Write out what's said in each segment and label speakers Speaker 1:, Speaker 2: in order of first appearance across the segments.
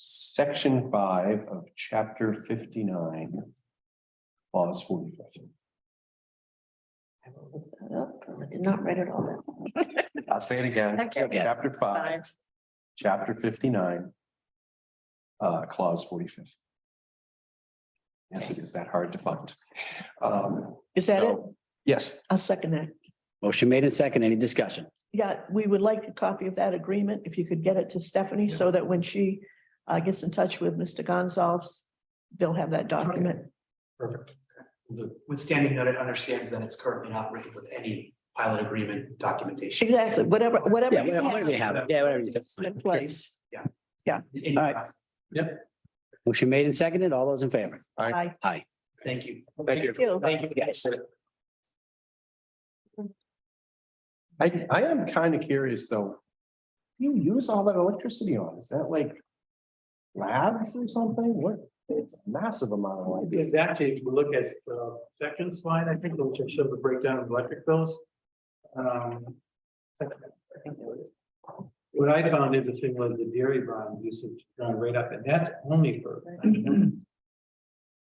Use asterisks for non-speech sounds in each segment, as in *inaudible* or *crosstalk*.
Speaker 1: section five of chapter fifty-nine. Clause forty-five.
Speaker 2: I will look that up because I did not write it all down.
Speaker 1: I'll Uh, say it again,
Speaker 2: Okay.
Speaker 1: chapter five, chapter fifty-nine. Uh, clause forty-fifth. Yes, it is that hard to find. Um,
Speaker 2: Is that it?
Speaker 1: so- Yes,
Speaker 2: I'll second that.
Speaker 3: Motion made in second. Any discussion?
Speaker 2: Yeah, we would like a copy of that agreement, if you could get it to Stephanie, so that when she uh gets in touch with Mr. Gonzalez, they'll have that document.
Speaker 4: Perfect. Withstanding that it understands that it's currently not written with any pilot agreement documentation.
Speaker 2: Exactly, whatever, whatever.
Speaker 3: Yeah,
Speaker 2: you
Speaker 3: whatever whatever you have. Yeah, whatever you have. it's
Speaker 2: have In
Speaker 3: fine.
Speaker 2: place.
Speaker 4: In-
Speaker 3: All right. Motion made and seconded. All those in favor?
Speaker 2: I,
Speaker 3: Aye.
Speaker 4: Thank you.
Speaker 3: Thank you.
Speaker 2: you.
Speaker 3: Thank you, guys.
Speaker 1: I, I am kind of curious, though. You use all that electricity on, is that like? Labs or something? What? It's massive amount of light.
Speaker 5: Is actually, if you look at the second slide, I think, which shows the breakdown of electric bills. Um, What I found interesting was the dairy bond usage gone right up, and that's only for.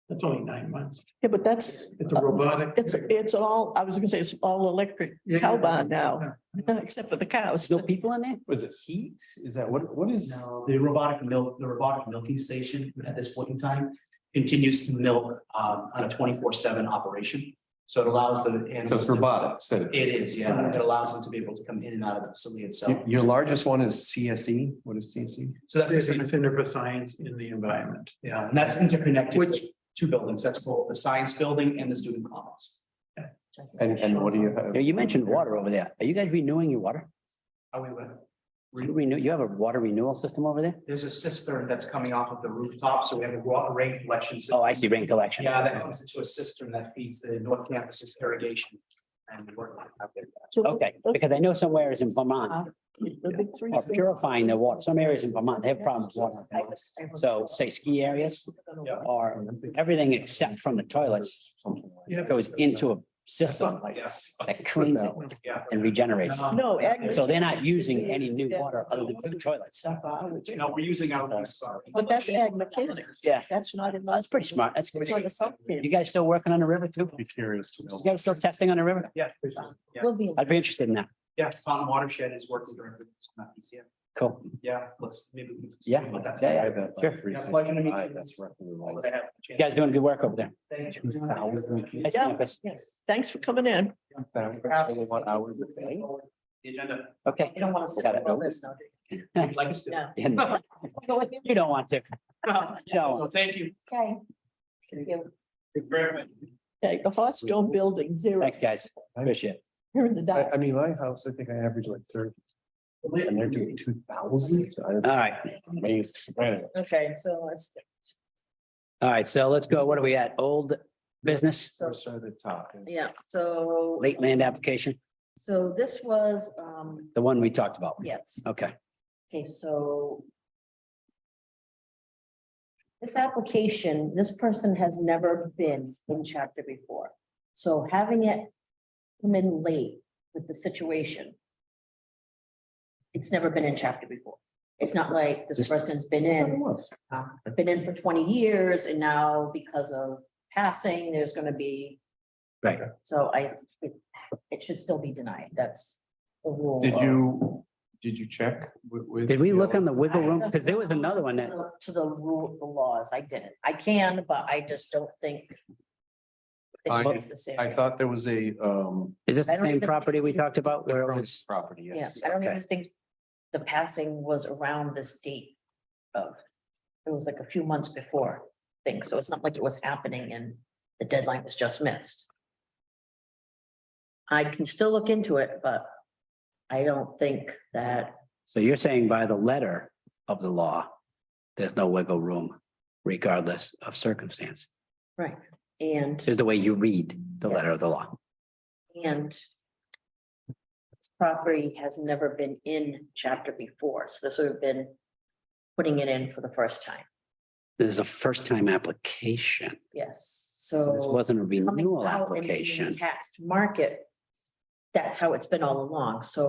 Speaker 5: That's only nine months.
Speaker 2: Yeah, but that's,
Speaker 5: It's a robotic.
Speaker 2: it's, it's all, I was gonna say, it's all electric cow barn now, *laughs* except for the cows.
Speaker 3: There's no people in there?
Speaker 1: Was it heat? Is that what, what is?
Speaker 4: Now, the robotic milk, the robotic milking station at this point in time continues to milk um, on a twenty-four seven operation. So it allows the.
Speaker 1: So it's
Speaker 4: animals-
Speaker 1: robotics. so-
Speaker 4: It is, yeah. It allows them to be able to come in and out of the facility itself.
Speaker 1: Your- Your largest one is CSE. What is E? CSE?
Speaker 4: So that's, the
Speaker 5: It's
Speaker 4: same-
Speaker 5: a Center for Science in the Environment.
Speaker 4: yeah, and that's interconnected
Speaker 5: Which-
Speaker 4: with two buildings. That's both the science building and the student commons.
Speaker 1: And, and what do you have?
Speaker 3: Yeah, You mentioned water over there. Are you guys renewing your water?
Speaker 4: Are we with?
Speaker 3: You Renew, you have a water renewal system over there?
Speaker 4: There's a cistern that's coming off of the rooftop, so we have a raw rain collection. system.
Speaker 3: Oh, I see. Rain collection.
Speaker 4: Yeah, that comes into a cistern that feeds the North Campus's irrigation. And we're out there.
Speaker 2: So
Speaker 3: Okay, because Oh, I know somewhere is in Vermont
Speaker 2: The big three.
Speaker 3: are purifying their water. Some areas in Vermont, they have problems with water. So say ski areas or everything except from the toilets goes into a system
Speaker 4: Like, yeah.
Speaker 3: that cleans it
Speaker 4: Yeah. Um,
Speaker 3: and regenerates. it.
Speaker 2: No, ag-
Speaker 3: So they're not using any new water other than for the toilets.
Speaker 4: You know, we're using our. own stuff.
Speaker 2: But that's ag mechanics.
Speaker 3: Yeah.
Speaker 2: That's not in.
Speaker 3: That's pretty smart. That's
Speaker 2: It's like
Speaker 3: good.
Speaker 2: a
Speaker 3: You
Speaker 2: subcamp.
Speaker 3: guys still working on the river too?
Speaker 1: Be curious to know.
Speaker 3: You guys still testing on the river?
Speaker 4: Yeah, yeah,
Speaker 6: We'll be, in-
Speaker 3: I'd be interested in that.
Speaker 4: yeah, Fountain Watershed is working directly with Scott PCF.
Speaker 3: Cool.
Speaker 4: Yeah, let's maybe. we can-
Speaker 3: Yeah,
Speaker 4: But that's-
Speaker 3: yeah, yeah.
Speaker 1: I have that by
Speaker 3: Sure.
Speaker 1: three
Speaker 4: Yeah, pleasure to meet
Speaker 1: fifty-five.
Speaker 4: you.
Speaker 1: That's roughly
Speaker 4: All
Speaker 1: right.
Speaker 4: that I have.
Speaker 3: You guys doing good work over there.
Speaker 4: Thank you.
Speaker 3: Nice campus.
Speaker 2: Yes, thanks for coming in.
Speaker 1: Only one hour a day.
Speaker 4: The agenda,
Speaker 3: Okay.
Speaker 6: you don't want to
Speaker 3: Got
Speaker 6: sit
Speaker 3: it.
Speaker 6: on all this now. do
Speaker 4: *laughs* Would you like us to.
Speaker 6: No.
Speaker 3: You
Speaker 6: *laughs* Go with you.
Speaker 3: don't want to. You don't.
Speaker 4: Well, thank you.
Speaker 6: Okay. Thank you.
Speaker 4: Thank you very much.
Speaker 2: Okay, the hot stone building, zero,
Speaker 3: Thanks, guys. Appreciate it.
Speaker 2: here in the
Speaker 1: I,
Speaker 2: dark.
Speaker 1: I mean, my house, I think I average like thirty. And they're doing two thousand.
Speaker 3: All right.
Speaker 1: Amazed. Anyway,
Speaker 6: Okay, so let's,
Speaker 3: All right. So let's go. What are we at? Old business,
Speaker 6: so,
Speaker 1: First at the top.
Speaker 6: yeah, so.
Speaker 3: late land application,
Speaker 6: So this was, um,
Speaker 3: the one we talked about.
Speaker 6: yes,
Speaker 3: Okay.
Speaker 6: okay, so. This application, this person has never been in chapter before, so having it come in late with the situation. It's never been in chapter before. It's not like this
Speaker 3: Just-
Speaker 6: person's been in uh, been in for twenty years and now because of passing, there's gonna be.
Speaker 3: Right.
Speaker 6: So I, it should still be denied, that's the rule.
Speaker 1: Did you, did you check wi- with?
Speaker 3: Did we look on the wiggle room?
Speaker 6: I-
Speaker 3: Because there was another one that,
Speaker 6: To the rule, the laws, I didn't, I can, but I just don't think.
Speaker 1: I-
Speaker 6: It's
Speaker 1: I
Speaker 6: necessary.
Speaker 1: I thought there was a, um.
Speaker 3: is this
Speaker 6: I
Speaker 3: the
Speaker 6: don't
Speaker 3: same
Speaker 6: even-
Speaker 3: property we talked about where it was?
Speaker 1: Property,
Speaker 6: Yeah,
Speaker 1: yes.
Speaker 6: I don't
Speaker 3: okay.
Speaker 6: even think the passing was around this date of, it was like a few months before thing, so it's not like it was happening and the deadline was just missed. I can still look into it, but I don't think that,
Speaker 3: So you're saying by the letter of the law, there's no wiggle room regardless of circumstance,
Speaker 6: right, and.
Speaker 3: is the way you read the letter of the law.
Speaker 6: And this property has never been in chapter before, so this would have been putting it in for the first time,
Speaker 3: This is a first time application.
Speaker 6: yes,
Speaker 3: So
Speaker 6: so.
Speaker 3: this wasn't a
Speaker 6: coming
Speaker 3: renewal
Speaker 6: out and being
Speaker 3: application.
Speaker 6: Taxed market. That's how it's been all along. So